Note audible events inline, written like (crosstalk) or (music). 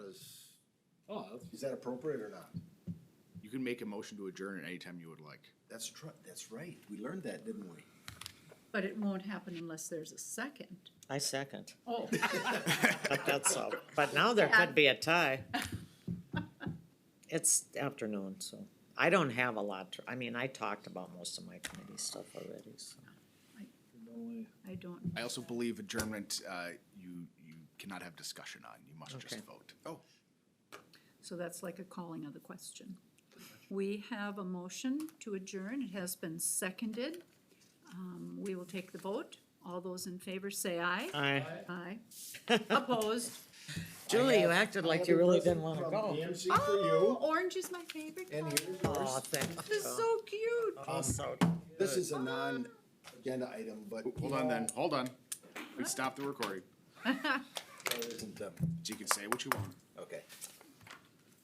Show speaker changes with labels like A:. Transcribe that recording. A: Oh, that's-
B: Is that appropriate or not?
C: You can make a motion to adjourn at any time you would like.
B: That's tr- that's right. We learned that, didn't we?
D: But it won't happen unless there's a second.
E: I second, (laughs)
D: Oh,
E: but that's all, but now there could be a tie. It's afternoon, so I don't have a lot, to- I mean, I talked about most of my committee stuff already, so.
D: I don't.
C: I also believe adjournment, uh, you, you cannot have discussion on, you must just
E: Okay.
C: vote. Oh,
D: So that's like a calling of the question. We have a motion to adjourn. It has been seconded. Um, we will take the vote. All those in favor say aye.
E: I,
D: Aye.
B: (laughs)
D: Opposed?
E: Julie, you acted like you really didn't wanna
B: From
E: go.
B: DMC for
D: Oh,
B: you
D: orange is my favorite
B: and
D: color.
B: here's
E: Oh,
B: yours.
E: thank you.
D: This is so cute.
E: Oh, so-
B: This is a non-agenda item, but. you
C: Hold on
B: know,
C: then, hold on. We stopped the recording,
B: there isn't, um,
C: so you can say what you want.
B: Okay.